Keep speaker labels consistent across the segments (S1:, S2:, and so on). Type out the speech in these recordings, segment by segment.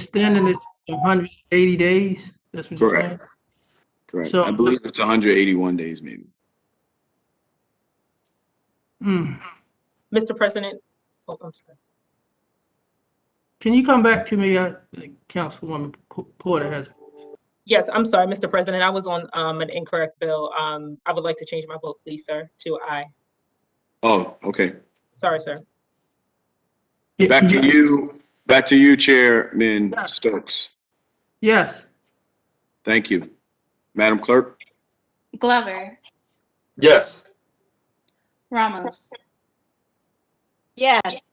S1: extending it to 180 days? That's what you're
S2: Correct.
S1: saying?
S2: Correct.
S1: So-
S2: I believe it's 181 days, maybe.
S1: Hmm.
S3: Mr. President, oh, I'm sorry.
S1: Can you come back to me? I think Councilwoman P- Porter has,
S3: Yes, I'm sorry, Mr. President, I was on um, an incorrect bill. Um, I would like to change my vote, please, sir, to aye.
S2: Oh, okay.
S3: Sorry, sir.
S2: Back to you, back to you, Chairman Stokes.
S1: yes,
S2: Thank you. Madam Clerk?
S4: Glover,
S5: Yes.
S4: Ramos,
S6: Yes.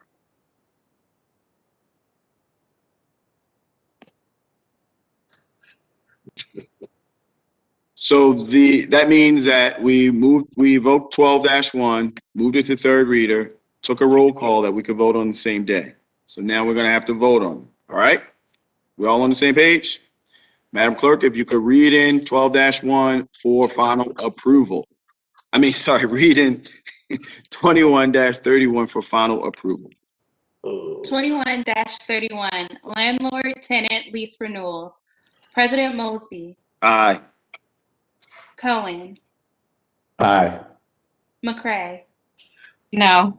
S2: So the, that means that we moved, we evoked 12-1, moved it to third reader, took a roll call that we could vote on the same day. So now we're going to have to vote on, it, all right? We all on the same page? Madam Clerk, if you could read in 12-1 for final approval. I mean, sorry, read in 21-31 for final approval.
S4: twenty-one thirty-one, landlord tenant lease renewals. President Mosby,
S2: Aye.
S4: Cohen,
S5: Aye.
S4: McCray,
S7: No.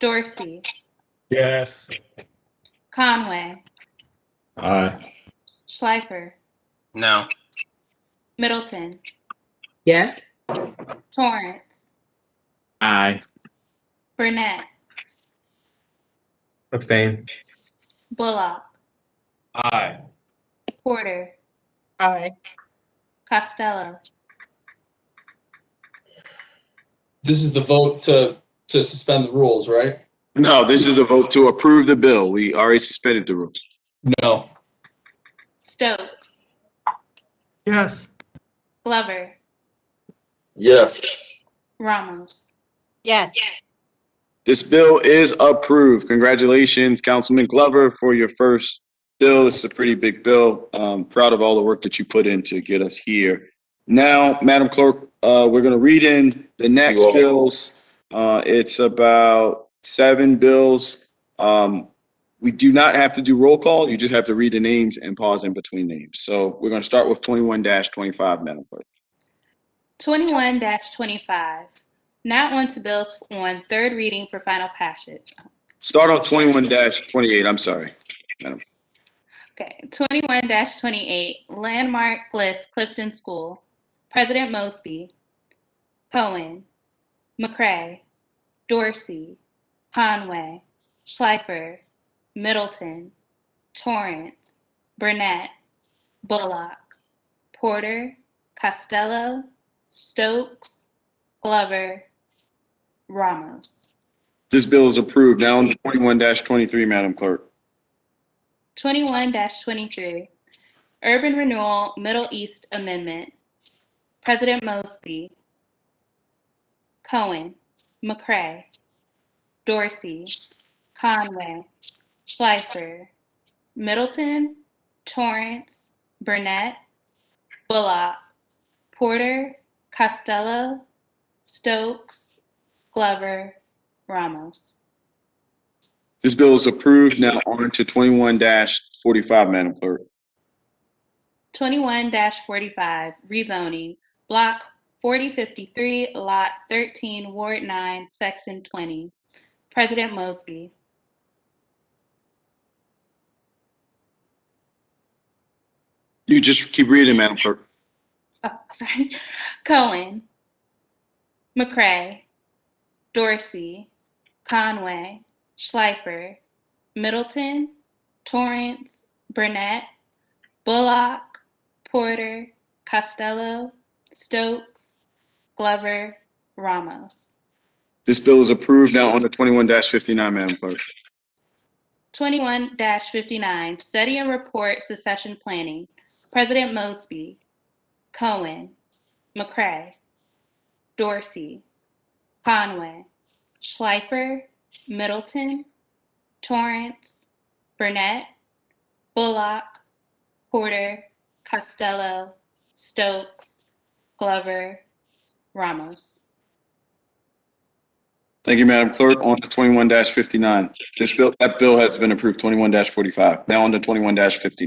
S4: Dorsey,
S8: Yes.
S4: Conway,
S5: Aye.
S4: Schleifer,
S9: No.
S4: Middleton,
S7: Yes.
S4: Torrance,
S5: Aye.
S4: Burnett,
S8: Abstain.
S4: Bullock,
S9: Aye.
S4: Porter,
S3: Aye.
S4: Costello,
S10: This is the vote to, to suspend the rules, right?
S2: No, this is a vote to approve the bill. We already suspended the rules.
S10: No.
S4: Stokes,
S1: yes,
S4: Glover,
S5: Yes.
S4: Ramos.
S6: Yes.
S2: This bill is approved. Congratulations, Councilman Glover, for your first bill. This is a pretty big bill. Um, proud of all the work that you put in to get us here. Now, Madam Clerk, uh, we're gonna read in the next
S5: You are.
S2: bills. Uh, it's about seven bills. Um, we do not have to do roll call. You just have to read the names and pause in between names. So we're gonna start with twenty-one twenty-five, Madam Clerk.
S4: 21 25. Not on to bills on third reading for final passage.
S2: Start on twenty-one twenty-eight, I'm sorry.
S4: Okay, 21 28, landmark list Clifton School, President Mosby, Cohen, McCray, Dorsey, Conway, Schleifer, Middleton, Torrance, Burnett, Bullock, Porter, Costello, Stokes, Glover, Ramos.
S2: This bill is approved. Now on twenty-one twenty-three, Madam Clerk.
S4: 21 23, Urban Renewal Middle East Amendment, President Mosby, Cohen, McCray, Dorsey, Conway, Schleifer, Middleton, Torrance, Burnett, Bullock, Porter, Costello, Stokes, Glover, Ramos.
S2: This bill is approved. Now on to twenty-one forty-five, Madam Clerk.
S4: 21-45 rezoning, block 4053, lot 13, ward 9, section 20. President Mosby,
S2: You just keep reading, Madam Clerk.
S4: oh, sorry, Cohen, McCray, Dorsey, Conway, Schleifer, Middleton, Torrance, Burnett, Bullock, Porter, Costello, Stokes, Glover, Ramos.
S2: This bill is approved. Now on to twenty-one fifty-nine, Madam Clerk.
S4: 21-59, study and report secession planning. President Mosby, Cohen, McCray, Dorsey, Conway, Schleifer, Middleton, Torrance, Burnett, Bullock, Porter, Costello, Stokes, Glover, Ramos.
S2: Thank you, Madam Clerk. On to twenty-one fifty-nine. This bill, that bill has been approved, twenty-one forty-five. Now on to twenty-one fifty-nine.